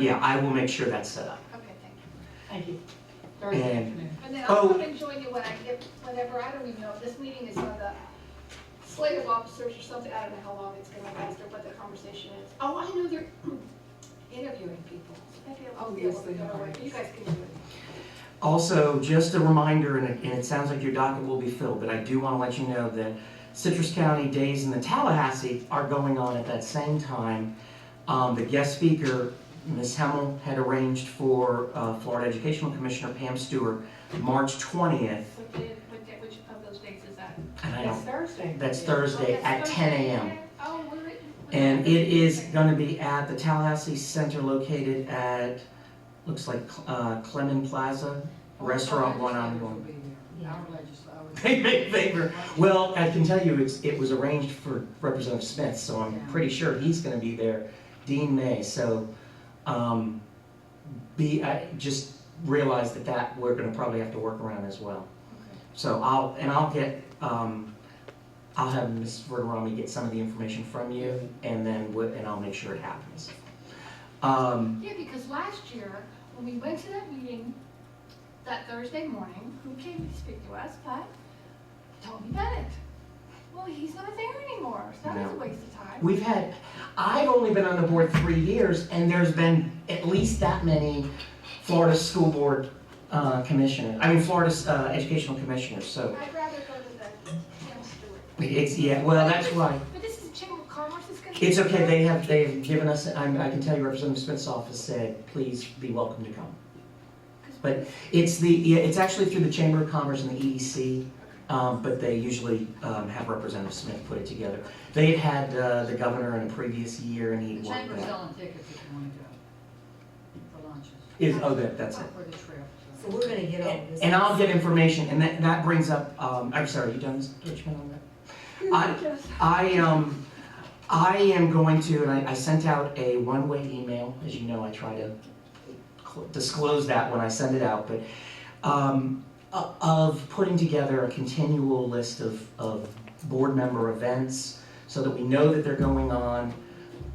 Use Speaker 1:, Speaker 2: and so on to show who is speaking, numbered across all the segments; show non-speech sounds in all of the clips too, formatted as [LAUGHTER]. Speaker 1: Yeah, I will make sure that's set up.
Speaker 2: Okay, thank you.
Speaker 3: Thank you. Thursday
Speaker 1: And-
Speaker 3: afternoon.
Speaker 2: And then
Speaker 1: Oh.
Speaker 2: I'll come and join you when I get, whenever, I don't even know, if this meeting is on the slate of officers or something, I don't know how long it's gonna last or what the conversation is. Oh, I know they're [CLEARS THROAT] interviewing people. Maybe I'll
Speaker 3: Oh,
Speaker 2: be
Speaker 3: yes,
Speaker 2: able to
Speaker 3: they
Speaker 2: go
Speaker 3: are.
Speaker 2: away. You guys can do it.
Speaker 1: Also, just a reminder, and it, and it sounds like your docket will be filled, but I do want to let you know that Citrus County Days in the Tallahassee are going on at that same time. Um, the guest speaker, Ms. Hemmel, had arranged for, uh, Florida Educational Commissioner Pam Stewart, March twentieth,
Speaker 4: What day, what day, which of those days is that?
Speaker 1: and I
Speaker 3: It's
Speaker 1: don't,
Speaker 3: Thursday.
Speaker 1: that's Thursday at ten AM.
Speaker 2: Oh, we're. we're-
Speaker 1: And it is gonna be at the Tallahassee Center located at, looks like uh, Clemon Plaza, Restaurant One on One.
Speaker 3: Yeah.
Speaker 1: They make favor. Well, I can tell you, it's, it was arranged for Representative Smith, so I'm pretty sure he's gonna be there, Dean May, so, um, be, I just realize that that, we're gonna probably have to work around as well. So I'll, and I'll get, um, I'll have Ms. Verderami get some of the information from you, and then, we- and I'll make sure it happens. Um,
Speaker 2: Yeah, because last year, when we went to that meeting, that Thursday morning, who came to speak to us but Tony Bennett? Well, he's not there anymore, so that was a
Speaker 1: No.
Speaker 2: waste of time.
Speaker 1: we've had, I've only been on the board three years, and there's been at least that many Florida school board, uh, commissioners, I mean, Florida, uh, educational commissioners, so,
Speaker 2: I'd rather go to the Jim Stewart.
Speaker 1: it's, yeah, well, that's why.
Speaker 2: But this is Chamber of Commerce is gonna.
Speaker 1: It's okay, they have, they have given us, I, I can tell you Representative Smith's office said, please be welcome to come. But it's the, yeah, it's actually through the Chamber of Commerce and the EDC, um, but they usually, um, have Representative Smith put it together. They had, uh, the governor in a previous year and he
Speaker 5: The
Speaker 1: won
Speaker 5: chamber's
Speaker 1: that.
Speaker 5: selling tickets if you want to go for lunches.
Speaker 1: Is, oh, that, that's it.
Speaker 5: For the trip. so.
Speaker 3: So we're gonna get all this.
Speaker 1: And I'll get information, and that, that brings up, um, I'm sorry, you done, Mr. Richmond, on that? I- I, um, I am going to, and I, I sent out a one-way email, as you know, I try to cl- disclose that when I send it out, but, um, o- of putting together a continual list of, of board member events, so that we know that they're going on.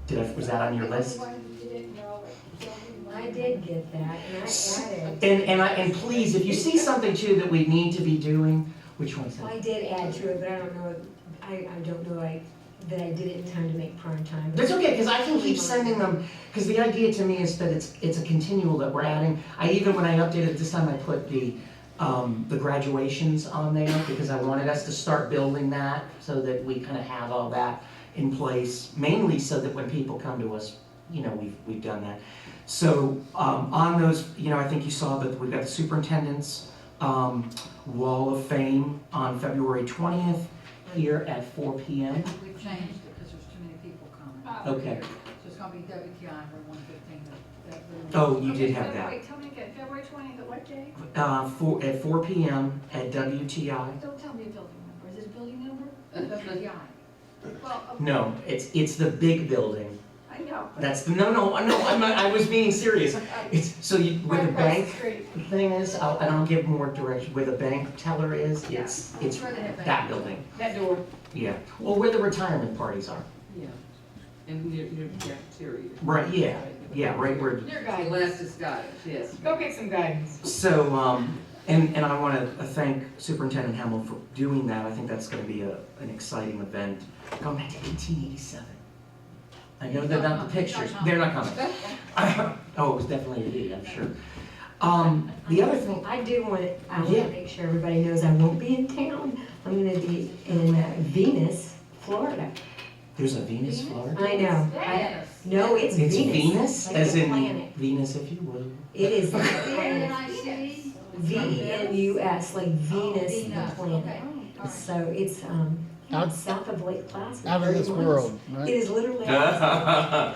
Speaker 1: Did I, was that on your list?
Speaker 2: Everyone didn't know it.
Speaker 3: I did get that, and I added,
Speaker 1: And, and I, and please, if you see something too that we need to be doing, which one's that?
Speaker 3: I did add to it, but I don't know, I, I don't know, I, that I did it in time to make prime time.
Speaker 1: That's okay, because I can keep sending them, because the idea to me is that it's, it's a continual that we're adding. I even, when I updated, this time I put the, um, the graduations on there, because I wanted us to start building that, so that we kind of have all that in place, mainly so that when people come to us, you know, we've, we've done that. So, um, on those, you know, I think you saw that we've got the superintendent's, um, Wall of Fame on February twentieth, here at four P M.
Speaker 5: We've changed it because there's too many people coming.
Speaker 2: Uh,
Speaker 3: Oh.
Speaker 1: Okay,
Speaker 5: So it's gonna be WTI for one fifteen.
Speaker 1: oh, you did
Speaker 2: Okay,
Speaker 1: have
Speaker 2: February-
Speaker 1: that.
Speaker 2: Wait, tell me again, February twentieth, at what day?
Speaker 1: uh, four, at four P M at WTI.
Speaker 2: Don't tell me a building number, is it a building number?
Speaker 5: WTI.
Speaker 2: Well, okay,
Speaker 1: No, it's, it's the big building.
Speaker 2: I know. but-
Speaker 1: That's, the no, no, no, I'm not, I was being serious. It's, so you, where the
Speaker 2: Right across
Speaker 1: bank
Speaker 2: street.
Speaker 1: thing is, I'll- and I'll give more direction, where the bank teller is, it's, it's
Speaker 5: Where they have
Speaker 1: that building.
Speaker 3: That door.
Speaker 1: Yeah, well, where the retirement parties are.
Speaker 6: Yeah, and near, near the cafeteria.
Speaker 1: Right, yeah, yeah, right where
Speaker 3: Your
Speaker 6: Alaska's got it, yes.
Speaker 3: Go get some guidance.
Speaker 1: So, um, and, and I want to thank Superintendent Hamel for doing that. I think that's going to be a, an exciting event. Going back to eighteen eighty-seven. I know they're not the pictures, they're not coming. [LAUGHS] Oh, it was definitely a he, I'm sure. Um, the other thing,
Speaker 3: I do want, I want
Speaker 1: Yeah.
Speaker 3: to make sure everybody knows I won't be in town. I'm gonna be in uh, Venus, Florida.
Speaker 1: there's a Venus flower.
Speaker 3: I know. I-
Speaker 5: Yes.
Speaker 3: No, it's
Speaker 1: It's
Speaker 3: Venus.
Speaker 1: Venus,
Speaker 3: like
Speaker 1: as
Speaker 3: the
Speaker 1: in
Speaker 3: planet.
Speaker 1: Venus, if you will.
Speaker 3: [LAUGHS]
Speaker 1: [LAUGHS]
Speaker 3: It is the
Speaker 5: N
Speaker 3: planet.
Speaker 5: I C?
Speaker 3: V E N U S, like Venus, the
Speaker 5: Venus,
Speaker 3: planet.
Speaker 5: okay. All right.
Speaker 3: So it's, um,
Speaker 7: Out-
Speaker 3: south of Lake Placid.
Speaker 7: out of this
Speaker 3: very
Speaker 7: world,
Speaker 3: nice.
Speaker 7: right?
Speaker 3: It
Speaker 1: [LAUGHS]
Speaker 3: is literally.
Speaker 1: And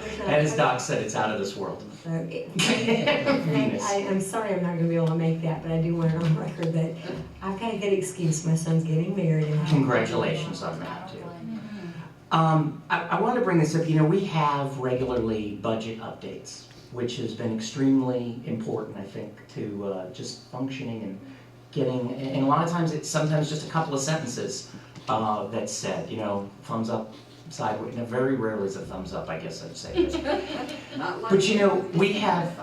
Speaker 1: as
Speaker 3: There's no-
Speaker 1: Doc said, it's out of this world.
Speaker 3: So it- [LAUGHS]
Speaker 1: Venus.
Speaker 3: I, I'm sorry I'm not gonna be able to make that, but I do want it on record that I've got a good excuse. My son's getting married and I-
Speaker 1: Congratulations on that, too. Um, I, I wanted to bring this up, you know, we have regularly budget updates, which has been extremely important, I think, to, uh, just functioning and getting, and and a lot of times it's sometimes just a couple of sentences, uh, that's said, you know, thumbs up, sideways, no, very rarely is a thumbs up, I guess I'd say.
Speaker 6: Not like-
Speaker 1: But you know, we have,